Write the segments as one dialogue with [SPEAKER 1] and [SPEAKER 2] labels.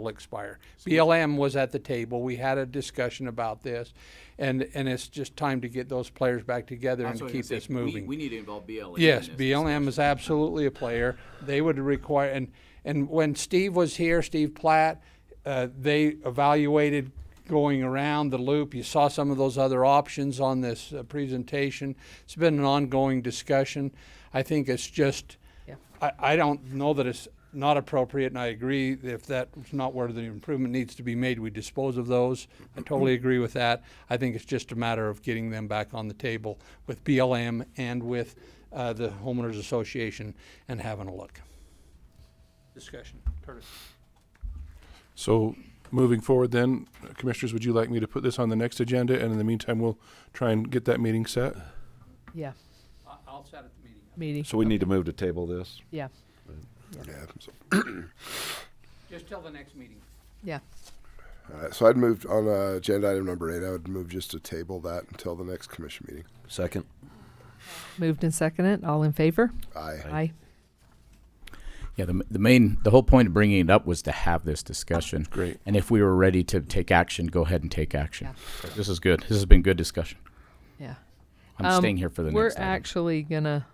[SPEAKER 1] will expire. BLM was at the table. We had a discussion about this, and and it's just time to get those players back together and
[SPEAKER 2] That's what I was
[SPEAKER 1] keep
[SPEAKER 2] gonna
[SPEAKER 1] this
[SPEAKER 2] say. We-
[SPEAKER 1] moving.
[SPEAKER 2] We need to involve BLM. in
[SPEAKER 1] Yes,
[SPEAKER 2] this.
[SPEAKER 1] BLM is absolutely a player. They would require, and, and when Steve was here, Steve Platt, uh, they evaluated going around the loop. You saw some of those other options on this uh, presentation. It's been an ongoing discussion. I think it's just,
[SPEAKER 3] Yeah.
[SPEAKER 1] I, I don't know that it's not appropriate, and I agree if that's not where the improvement needs to be made, we dispose of those. I totally agree with that. I think it's just a matter of getting them back on the table with BLM and with uh, the homeowners association and having a look. Discussion, Curtis.
[SPEAKER 4] So moving forward then, uh, commissioners, would you like me to put this on the next agenda? And in the meantime, we'll try and get that meeting set?
[SPEAKER 3] Yeah,
[SPEAKER 1] I'll set at the meeting.
[SPEAKER 3] meeting,
[SPEAKER 5] So we need to move to table this?
[SPEAKER 3] yeah,
[SPEAKER 6] Yeah, so-
[SPEAKER 1] Just till the next meeting.
[SPEAKER 3] yeah.
[SPEAKER 6] all right, so I'd moved on uh, agenda item number eight. I would move just to table that until the next commission meeting.
[SPEAKER 5] Second.
[SPEAKER 3] Moved and seconded, all in favor?
[SPEAKER 6] Aye.
[SPEAKER 3] Aye.
[SPEAKER 7] Yeah, the, the main, the whole point of bringing it up was to have this discussion.
[SPEAKER 4] Great.
[SPEAKER 7] And if we were ready to take action, go ahead and take action.
[SPEAKER 3] Yeah.
[SPEAKER 7] This is good. This has been good discussion.
[SPEAKER 3] Yeah.
[SPEAKER 7] I'm
[SPEAKER 3] Um,
[SPEAKER 7] staying here for the
[SPEAKER 3] We're
[SPEAKER 7] next item.
[SPEAKER 3] actually gonna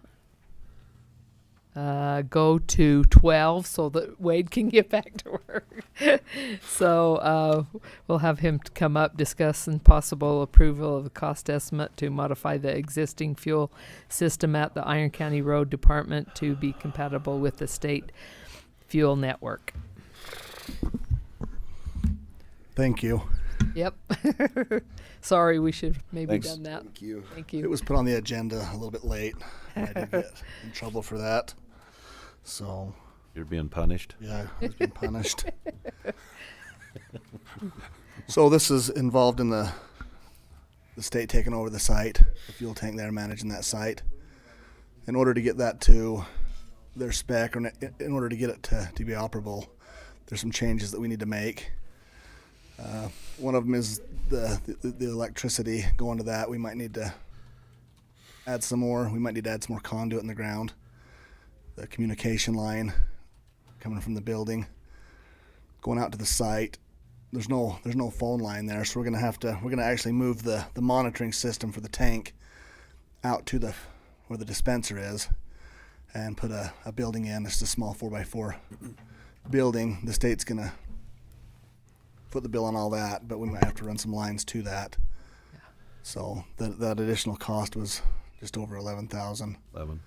[SPEAKER 3] uh, go to 12 so that Wade can get back to work. so uh, we'll have him t- come up, discuss and possible approval of a cost estimate to modify the existing fuel system at the Iron County Road Department to be compatible with the state fuel network.
[SPEAKER 8] Thank you.
[SPEAKER 3] Yep. Sorry, we should have maybe
[SPEAKER 5] Thanks.
[SPEAKER 3] done that.
[SPEAKER 6] Thank you.
[SPEAKER 3] Thank
[SPEAKER 8] It
[SPEAKER 3] you.
[SPEAKER 8] was put on the agenda a little bit late. I did get in trouble for that. So,
[SPEAKER 5] You're being punished.
[SPEAKER 8] yeah, I've been punished. so this is involved in the the state taking over the site, the fuel tank there managing that site. In order to get that to their spec, or in- in order to get it to, to be operable, there's some changes that we need to make. Uh, one of them is the, the the electricity going to that. We might need to add some more. We might need to add some more conduit in the ground. The communication line coming from the building, going out to the site. There's no there's no phone line there, so we're gonna have to we're gonna actually move the the monitoring system for the tank out to the where the dispenser is, and put a, a building in. It's a small four by four building. The state's gonna put the bill on all that, but we might have to run some lines to that. So that that additional cost was just over eleven thousand.
[SPEAKER 5] Eleven.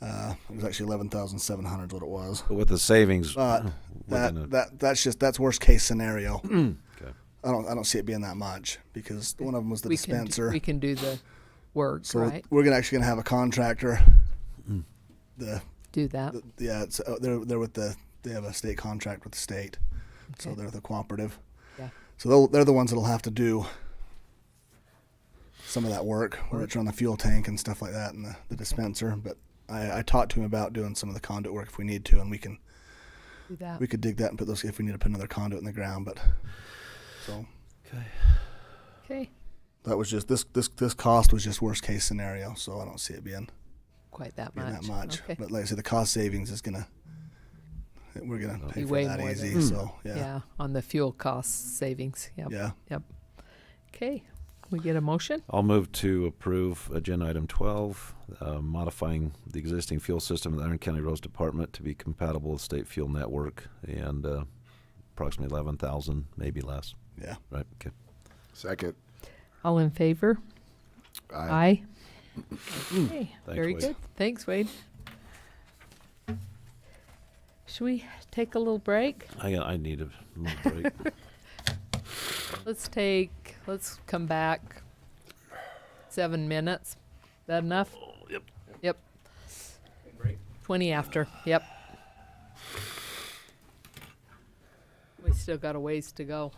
[SPEAKER 8] Uh, it was actually eleven thousand seven hundred what it was.
[SPEAKER 5] But with the savings,
[SPEAKER 8] But
[SPEAKER 5] we're
[SPEAKER 8] that
[SPEAKER 5] gonna-
[SPEAKER 8] that that's just that's worst case scenario.
[SPEAKER 5] Okay.
[SPEAKER 8] I don't I don't see it being that much because one of them was the
[SPEAKER 3] we Can
[SPEAKER 8] dispenser.
[SPEAKER 3] do, we can do the work,
[SPEAKER 8] so
[SPEAKER 3] right?
[SPEAKER 8] we're gonna actually gonna have a contractor. The,
[SPEAKER 3] Do that.
[SPEAKER 8] the yeah, it's, uh, they're they're with the they have a state contract with the state, so
[SPEAKER 3] Okay.
[SPEAKER 8] they're the cooperative.
[SPEAKER 3] Yeah.
[SPEAKER 8] So they'll, they're the ones that'll have to do some of that work, where it's on the fuel tank and stuff like that, and the, the dispenser. But I, I talked to him about doing some of the conduit work if we need to, and we can
[SPEAKER 3] Do that.
[SPEAKER 8] we could dig that and put those if we need to put another conduit in the ground but so
[SPEAKER 3] okay.
[SPEAKER 8] that was just this this this cost was just worst case scenario so i don't see it being,
[SPEAKER 3] Quite that
[SPEAKER 8] being
[SPEAKER 3] much.
[SPEAKER 8] that much
[SPEAKER 3] Okay.
[SPEAKER 8] but like i said the cost savings is gonna we're gonna pay
[SPEAKER 3] Be
[SPEAKER 8] for
[SPEAKER 3] way
[SPEAKER 8] that
[SPEAKER 3] more
[SPEAKER 8] easy
[SPEAKER 3] than- Hmm.
[SPEAKER 8] so
[SPEAKER 3] yeah.
[SPEAKER 8] yeah yeah,
[SPEAKER 3] On the fuel cost savings. Yep. Yep. Okay. We get a motion.
[SPEAKER 5] I'll move to approve agenda item twelve, uh, modifying the existing fuel system of the Iron County Roads Department to be compatible with state fuel network and, uh, approximately eleven thousand, maybe less,
[SPEAKER 8] yeah.
[SPEAKER 5] right? Okay.
[SPEAKER 6] Second.
[SPEAKER 3] All in favor?
[SPEAKER 6] Aye.
[SPEAKER 3] Aye. Okay. Very
[SPEAKER 5] Wade.
[SPEAKER 3] good. Thanks, Wade. Should we take a little break?
[SPEAKER 5] I, I need a little break.
[SPEAKER 3] Let's take, let's come back seven minutes. That enough? Yep. Yep. Twenty after, yep. We still got a ways to go.